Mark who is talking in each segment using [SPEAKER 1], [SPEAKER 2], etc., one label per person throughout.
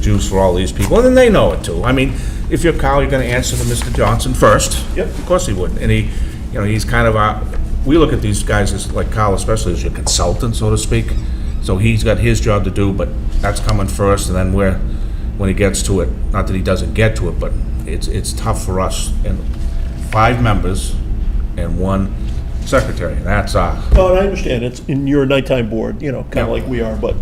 [SPEAKER 1] juice for all these people, and then they know it too. I mean, if you're Kyle, you're gonna answer to Mr. Johnson first.
[SPEAKER 2] Yep.
[SPEAKER 1] Of course he would, and he, you know, he's kind of our, we look at these guys as, like Kyle especially, as your consultant, so to speak. So he's got his job to do, but that's coming first, and then we're, when he gets to it, not that he doesn't get to it, but it's, it's tough for us, and five members and one secretary, and that's uh, our,
[SPEAKER 2] No, and I understand, it's, and you're a nighttime board, you know, kind
[SPEAKER 1] Yeah.
[SPEAKER 2] of like we are, but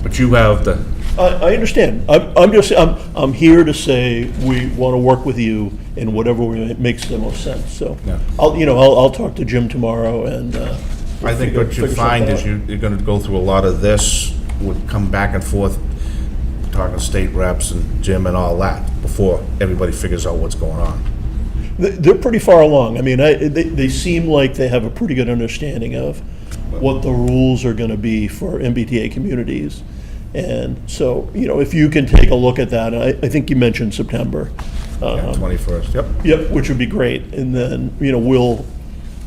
[SPEAKER 1] but you have the,
[SPEAKER 2] I, I understand. I'm, I'm just, I'm, I'm here to say we want to work with you in whatever way makes the most sense, so.
[SPEAKER 1] Yeah.
[SPEAKER 2] I'll, you know, I'll, I'll talk to Jim tomorrow and, uh.
[SPEAKER 1] I think what you
[SPEAKER 2] figure something
[SPEAKER 1] find is
[SPEAKER 2] out.
[SPEAKER 1] you, you're gonna go through a lot of this, would come back and forth, talking to state reps and Jim and all that, before everybody figures out what's going on.
[SPEAKER 2] They- They're pretty far along. I mean, I, they, they seem like they have a pretty good understanding of what the rules are gonna be for MBTA communities. And so, you know, if you can take a look at that, and I, I think you mentioned September. Uh-huh.
[SPEAKER 1] Yeah, Twenty-first, yep.
[SPEAKER 2] Yep, which would be great, and then, you know, we'll,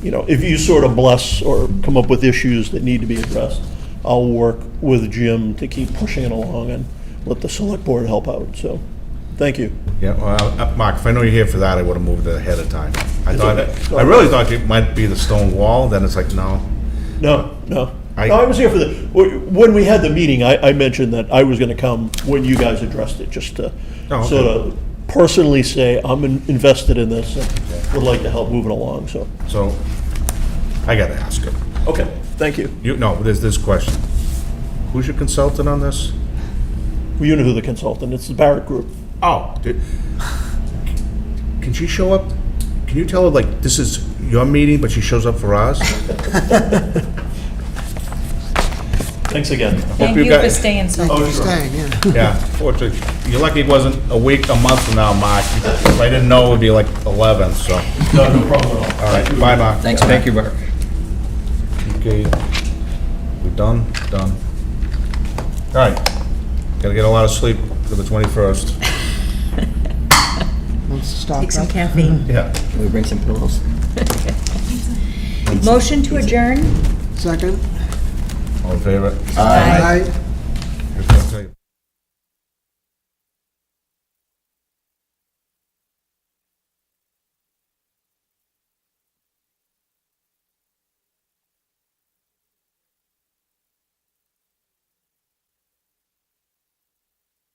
[SPEAKER 2] you know, if you sort of bless or come up with issues that need to be addressed, I'll work with Jim to keep pushing it along and let the select board help out, so, thank you.
[SPEAKER 1] Yeah, well, uh, Mark, if I know you're here for that, I would've moved it ahead of time. I thought,
[SPEAKER 2] okay.
[SPEAKER 1] I really thought it might be the stone wall, then it's like, no.
[SPEAKER 2] No, no,
[SPEAKER 1] I-
[SPEAKER 2] no, I was here for the, wh- when we had the meeting, I, I mentioned that I was gonna come when you guys addressed it, just to
[SPEAKER 1] Oh, okay.
[SPEAKER 2] sort of personally say, I'm in- invested in this and would like to help move it along, so,
[SPEAKER 1] So, I gotta ask him.
[SPEAKER 2] okay, thank you.
[SPEAKER 1] You, no, there's this question. Who's your consultant on this?
[SPEAKER 2] Well, You know who the consultant, it's the Barrett Group.
[SPEAKER 1] Oh, did, can she show up? Can you tell her, like, this is your meeting, but she shows up for ours?
[SPEAKER 2] Thanks again.
[SPEAKER 1] Hope
[SPEAKER 3] Thank
[SPEAKER 1] you
[SPEAKER 3] you
[SPEAKER 1] got-
[SPEAKER 3] for staying so late.
[SPEAKER 4] Staying, yeah.
[SPEAKER 1] Yeah, fortunately, you're lucky it wasn't a week, a month from now, Mark. If I didn't know, it'd be like 11, so.
[SPEAKER 2] No, no problem at all.
[SPEAKER 1] All right, bye, Mark.
[SPEAKER 5] Thanks, Mark. Thank you, Mark.
[SPEAKER 1] Okay, we're done, done. All right, gotta get a lot of sleep for the 21st.
[SPEAKER 4] Let's stop
[SPEAKER 3] Take some
[SPEAKER 4] that.
[SPEAKER 3] caffeine.
[SPEAKER 1] Yeah.
[SPEAKER 5] We bring some pillows.
[SPEAKER 3] Motion to adjourn?
[SPEAKER 4] Second?
[SPEAKER 1] All in favor?
[SPEAKER 4] Aye.